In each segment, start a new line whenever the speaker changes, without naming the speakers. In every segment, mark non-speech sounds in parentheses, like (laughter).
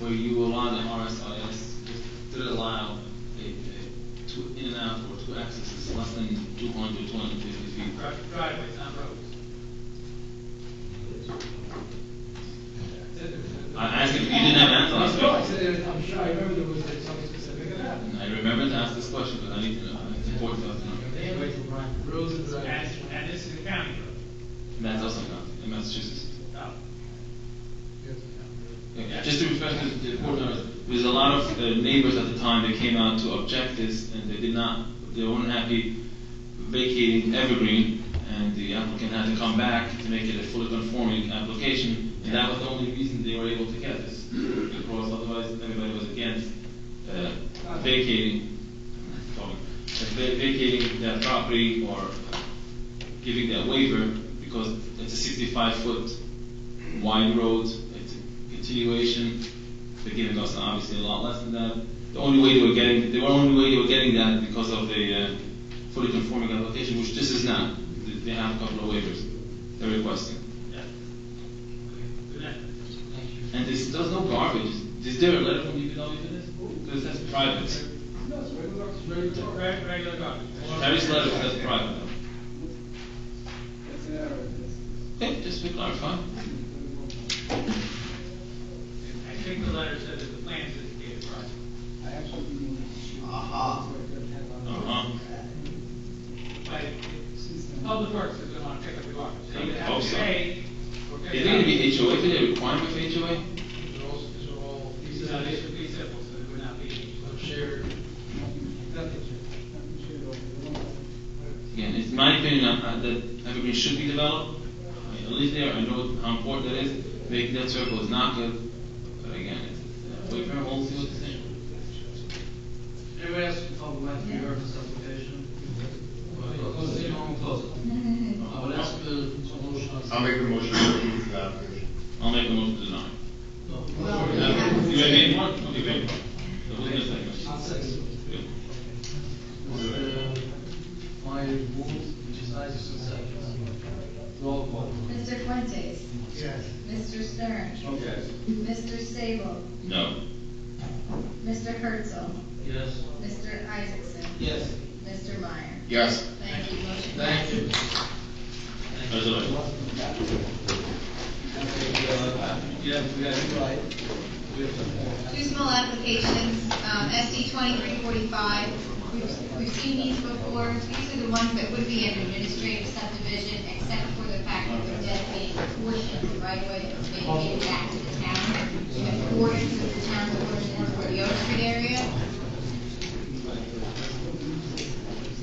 where you align the RSIS to allow a, a two in and out or two accesses less than 200, 250 feet.
Dri- driveways, not roads.
I asked if you didn't have an answer
I'm
last
sure, I
week.
said, I'm sure, I remember there was something specific of that.
And I remember to ask this question, but I need to know. It's important to us to know.
Roads and driveways. And, and this is a county road.
And that's also not in Massachusetts.
Oh.
Okay, Just to refresh the, the board members, there's a lot of uh, neighbors at the time that came out to object this, and they did not, they were unhappy vacating Evergreen, and the applicant had to come back to make it a fully conforming application, and that was the only reason they were able to get this, because otherwise everybody was against uh, vacating, sorry, uh, va- vacating that property or giving that waiver, because it's a sixty-five foot wide road, it's a continuation, they're giving us obviously a lot less than that. The only way they were getting, the only way they were getting that because of the uh, fully conforming application, which this is not. They- They have a couple of waivers they're requesting.
Yeah. Good night.
And this does no garbage. Is there a letter from DPW for this? Because that's private.
No, it's regular, it's regular. Reg- Regular garbage.
Terry's letter says private. Okay, just to clarify.
I think the letter said that the plans indicated private.
Uh-huh.
But it's- public works is gonna pick up the garbage. They either
Hope Oh,
have to
so.
pay. or pick
Is
it
there gonna
up.
be HOA, is there a requirement for HOA?
These are all, these are all, these are, they should be simple, so they would not be shared.
Again, it's my opinion uh, uh, that evergreen should be developed. I I live there, I know how important that is. Making that circle is not good, but again, it's, uh, wait for a whole field to say.
Anybody else from public land for your application? Close it, I'm close it. I would ask the motion.
I'll make a motion to approve the application.
I'll make a motion to deny.
No.
You made one? Okay, wait. So who's gonna second?
I'll second.
Good.
Uh, My move, which is I just Roll call.
Mr. Fuentes? Yes. Mr. Stern?
Yes.
Mr. Sable?
No.
Mr. Herzl?
Yes.
Mr. Isaacson?
Yes.
Mr. Meyer?
Yes.
Thank you, motion
Thank you.
passes.
There's a letter.
Yeah, we have, right. We have the
Two small applications, um, SD twenty-three forty-five, we've, we've seen these before, these are the ones that would be an administrative subdivision, except for the fact that they're dedicating a portion of the right way that's vacated back to the town. You have portions of the town's portions for the Oak Street area,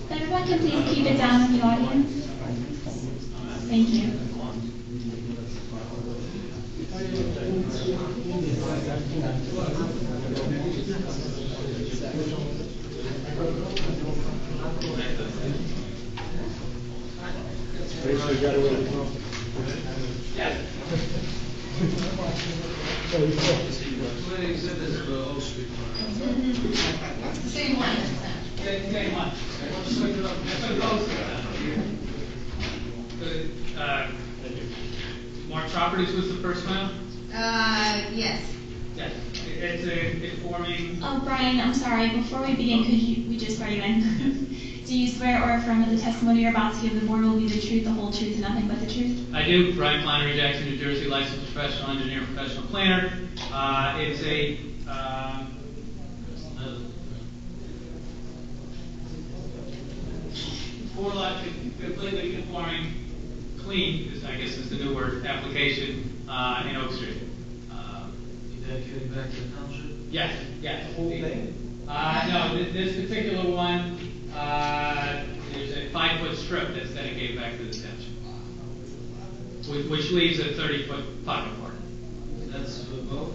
If everyone can please keep it down in the audience. Thank you.
Too many exhibits for Oak Street.
it's the same one,
Thank you very much. I want to switch it up. I put those down. But, uh, Mark Properties was the first one?
uh, yes.
Yes. It's a informing,
Oh, Brian, I'm sorry, before we begin, could you, we just swear you in. (laughs) Do you swear or affirm that the testimony you're about to give the board will be the truth, the whole truth, and nothing but the truth?
I do, Brian Flannery Jackson, New Jersey, licensed professional engineer, professional planner. Uh, it's a, um,
Uh,
four lot completely conforming, clean, is, I guess is the new word, application, uh, in Oak Street. Uh,
Dedicating back to the township.
Yes, yes.
The whole thing?
Uh, no, thi- this particular one, uh, there's a five-foot strip that's dedicated back to the township. Which, which leaves a thirty-foot pocket park.
That's for both.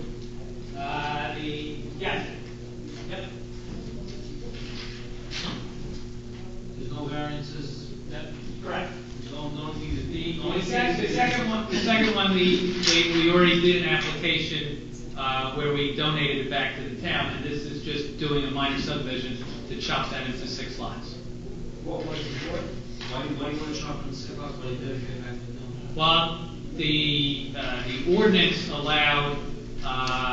Uh, the, yes, yep,
There's no variances.
yep, correct.
No, no need to be.
The only sec- the second one, the second one, we, we we already did an application, uh, where we donated it back to the town, and this is just doing a minor subdivision to chop that into six lots.
What was the point? Why, why you want to chop and skip up, why you dedicate back to the township?
Well, the, uh, the ordinance allowed, uh,